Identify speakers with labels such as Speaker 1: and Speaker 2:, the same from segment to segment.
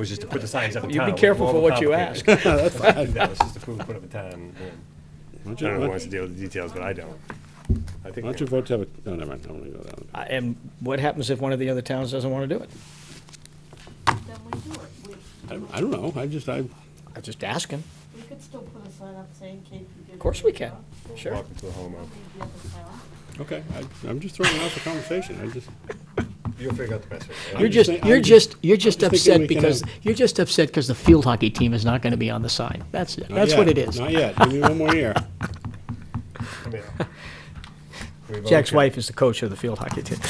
Speaker 1: was just to put the signs up in
Speaker 2: You
Speaker 1: town.
Speaker 2: be
Speaker 1: It was
Speaker 2: careful
Speaker 1: more
Speaker 2: for what you ask.
Speaker 1: complicated.
Speaker 3: That's fine.
Speaker 1: That was just to put put up in town. and I
Speaker 3: Why
Speaker 1: don't know who
Speaker 3: don't
Speaker 1: wants
Speaker 3: you-
Speaker 1: to deal with the details, but I don't. I
Speaker 3: why don't
Speaker 1: think,
Speaker 3: you vote to have a, no, never mind, I don't want to go down.
Speaker 2: I- And what happens if one of the other towns doesn't want to do it?
Speaker 4: Then we do it. We,
Speaker 3: I- I don't know, I just, I,
Speaker 2: I'm just asking.
Speaker 4: we could still put a sign up saying KPW.
Speaker 2: Of course we can, sure.
Speaker 1: welcome to the home of,
Speaker 4: Leave the other town.
Speaker 3: okay, I- I'm just throwing out the conversation, I just,
Speaker 1: you'll figure out the best way.
Speaker 2: You're
Speaker 3: just
Speaker 2: just,
Speaker 3: saying-
Speaker 2: you're
Speaker 3: I'm just-
Speaker 2: just, you're just
Speaker 3: I'm just thinking
Speaker 2: upset
Speaker 3: we can
Speaker 2: because,
Speaker 3: have-
Speaker 2: you're just upset because the field hockey team is not going to be on the sign. That's, it.
Speaker 3: not
Speaker 2: that's what
Speaker 3: yet,
Speaker 2: it is.
Speaker 3: Not yet, give me one more year.
Speaker 1: I mean, we vote
Speaker 2: Jack's
Speaker 1: to-
Speaker 2: wife is the coach of the field hockey team.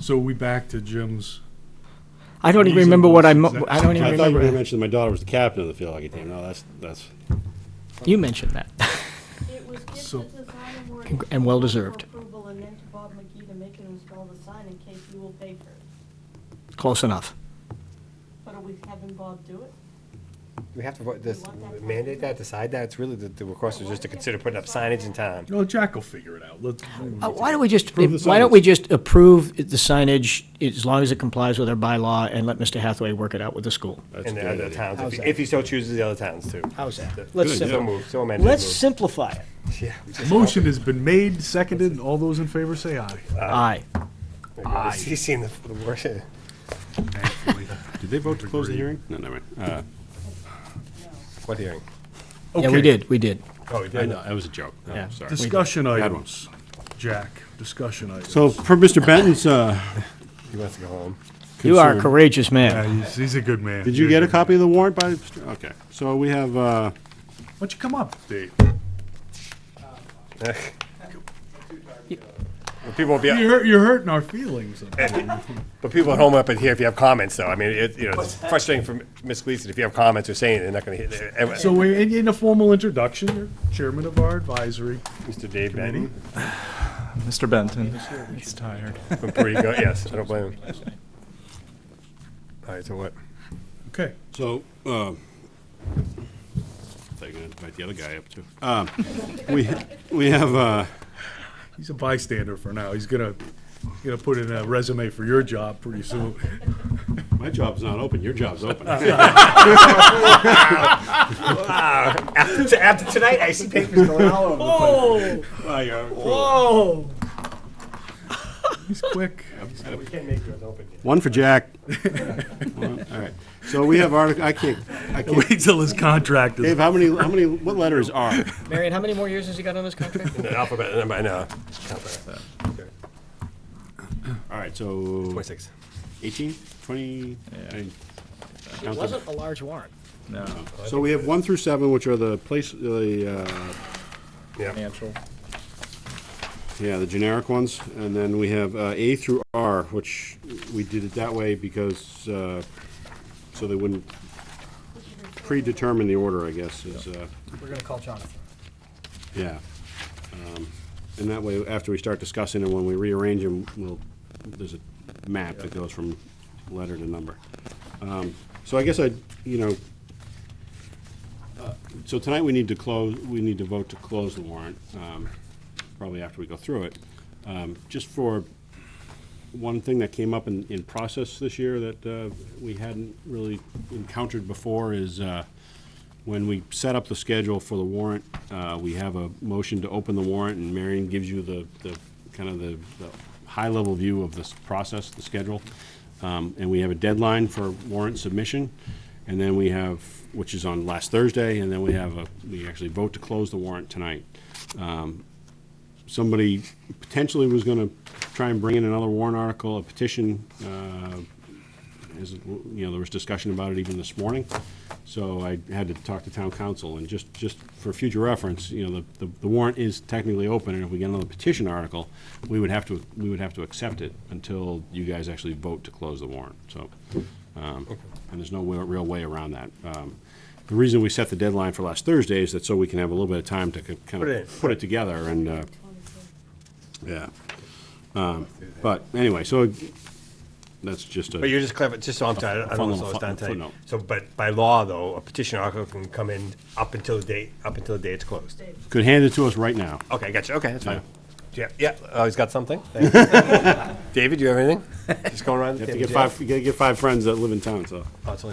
Speaker 5: So we back to Jim's,
Speaker 2: I don't even remember what I, mo-
Speaker 5: Reasons.
Speaker 2: I don't even
Speaker 3: I thought you were gonna
Speaker 2: remember.
Speaker 3: mention that my daughter was the captain of the field hockey team, no, that's, that's,
Speaker 2: You mentioned that.
Speaker 4: It was
Speaker 5: So-
Speaker 4: gifted the sign award.
Speaker 2: Congr- and well deserved.
Speaker 4: For approval and then to Bob McGee to make and install the sign in case you will pay for it.
Speaker 2: Close enough.
Speaker 4: But are we having Bob do it?
Speaker 1: We have to vote this, mandate that, decide that. It's really, the, the request is just to consider putting up signage in town.
Speaker 5: well, Jack will figure it out. Let's,
Speaker 2: Uh, Why don't we just,
Speaker 3: Approve the
Speaker 2: why don't we
Speaker 3: signage.
Speaker 2: just approve the signage as long as it complies with our bylaw and let Mr. Hathaway work it out with the school?
Speaker 3: that's a
Speaker 1: And
Speaker 3: good
Speaker 1: the other
Speaker 3: idea.
Speaker 1: towns,
Speaker 2: How's
Speaker 1: if he-
Speaker 2: that?
Speaker 1: if he so chooses the other towns too.
Speaker 2: How's that?
Speaker 3: Good.
Speaker 2: Let's
Speaker 1: So
Speaker 2: simplify,
Speaker 1: moved, so amended.
Speaker 2: let's
Speaker 1: moved.
Speaker 2: simplify it.
Speaker 1: Yeah, we just-
Speaker 5: motion has been made, seconded, and all those in favor say aye.
Speaker 2: Aye.
Speaker 1: Everybody's- He's seen the, the worst.
Speaker 5: Thankfully.
Speaker 3: Did they vote to close the
Speaker 5: Agreed.
Speaker 3: hearing? No, never mind, uh,
Speaker 1: What hearing?
Speaker 2: Yeah, we
Speaker 5: Okay.
Speaker 2: did, we did.
Speaker 1: Oh, he
Speaker 3: I
Speaker 1: did.
Speaker 3: know, that was a joke,
Speaker 2: Yeah.
Speaker 3: I'm sorry.
Speaker 5: Discussion
Speaker 3: Bad
Speaker 5: items, Jack, discussion items.
Speaker 3: So for Mr. Benton's, uh,
Speaker 1: He wants to go home.
Speaker 2: You are a
Speaker 3: Concern.
Speaker 2: courageous
Speaker 5: Yeah,
Speaker 2: man.
Speaker 5: he's, he's a good man.
Speaker 3: did you get a copy of the warrant by, okay, so we have, uh,
Speaker 5: Why don't you come up, Dave?
Speaker 1: But people will be,
Speaker 5: You're, hurt- you're hurting our feelings.
Speaker 1: but people at home up in here, if you have comments though, I mean, it, you know, it's frustrating for Ms. Gleason, if you have comments or saying, it, they're eh, not gonna hear. everyone-
Speaker 5: So we're in, in a formal introduction, you're chairman of our advisory.
Speaker 1: Mr. Dave Benton,
Speaker 6: Mr. Benton, it's tired.
Speaker 1: from Pretty Go, yes, I don't blame him. All right, so what?
Speaker 5: Okay.
Speaker 3: So, um, they're gonna invite the other guy up too. Um, we, we have, uh,
Speaker 5: He's a bystander for now. He's gonna, gonna put in a resume for your job pretty soon.
Speaker 3: my job's not open, your job's open.
Speaker 1: After, after tonight, I see papers going all over.
Speaker 2: Oh,
Speaker 3: Well, you're-
Speaker 2: oh.
Speaker 5: He's quick.
Speaker 1: We can't make yours open yet.
Speaker 3: One for Jack. One- All right, so we have article, I can't, I can't,
Speaker 5: Wait till his contract is
Speaker 3: Dave, how many, how many, what letter is R?
Speaker 2: Marion, how many more years has he got on this contract?
Speaker 1: The alphabet number, I know. Alphabet. Okay.
Speaker 3: All right, so
Speaker 1: Twenty-six.
Speaker 3: eighteen, twenty?
Speaker 2: It wasn't a large warrant.
Speaker 6: No,
Speaker 3: So we have one through seven, which are the place, the, uh,
Speaker 1: Yeah.
Speaker 6: financial.
Speaker 3: Yeah, the generic ones, and then we have uh, A through R, which we did it that way because, uh, so they wouldn't predetermine the order, I guess, is, uh,
Speaker 2: We're gonna call Jonathan.
Speaker 3: yeah. Um, And that way, after we start discussing it, when we rearrange them, we'll, there's a map that goes from letter to number. Um, So I guess I, you know, uh, so tonight we need to close, we need to vote to close the warrant, um, probably after we go through it. Um, Just for one thing that came up in, in process this year that uh, we hadn't really encountered before is uh, when we set up the schedule for the warrant, uh, we have a motion to open the warrant, and Marion gives you the, the, kind of the, the high-level view of this process, the schedule. Um, And we have a deadline for warrant submission, and then we have, which is on last Thursday, and then we have a, we actually vote to close the warrant tonight somebody potentially was going to try and bring in another warrant article, a petition, uh, as, you know, there was discussion about it even this morning. So I had to talk to town council, and just, just for future reference, you know, the, the warrant is technically open, and if we get another petition article, we would have to, we would have to accept it until you guys actually vote to close the warrant, so. um, And there's no wa- real way around that. Um, The reason we set the deadline for last Thursday is that so we can have a little bit of time to kind
Speaker 1: Put it in.
Speaker 3: of put it together and, uh, yeah. Um, But anyway, so that's just a.
Speaker 1: But you're just clever, just so I'm sorry, I don't want to slow us down today.
Speaker 3: Footnote.
Speaker 1: So, but by law though, a petition article can come in up until the date, up until the day it's closed.
Speaker 3: Could hand it to us right now.
Speaker 1: Okay, I got you, okay, that's fine. Yeah, yeah, oh, he's got something? Thank you. David, do you have anything? Just going around
Speaker 3: You
Speaker 1: the table.
Speaker 3: have to get
Speaker 1: Jeff?
Speaker 3: five, you gotta get five friends that live in town, so.
Speaker 1: Oh, it's only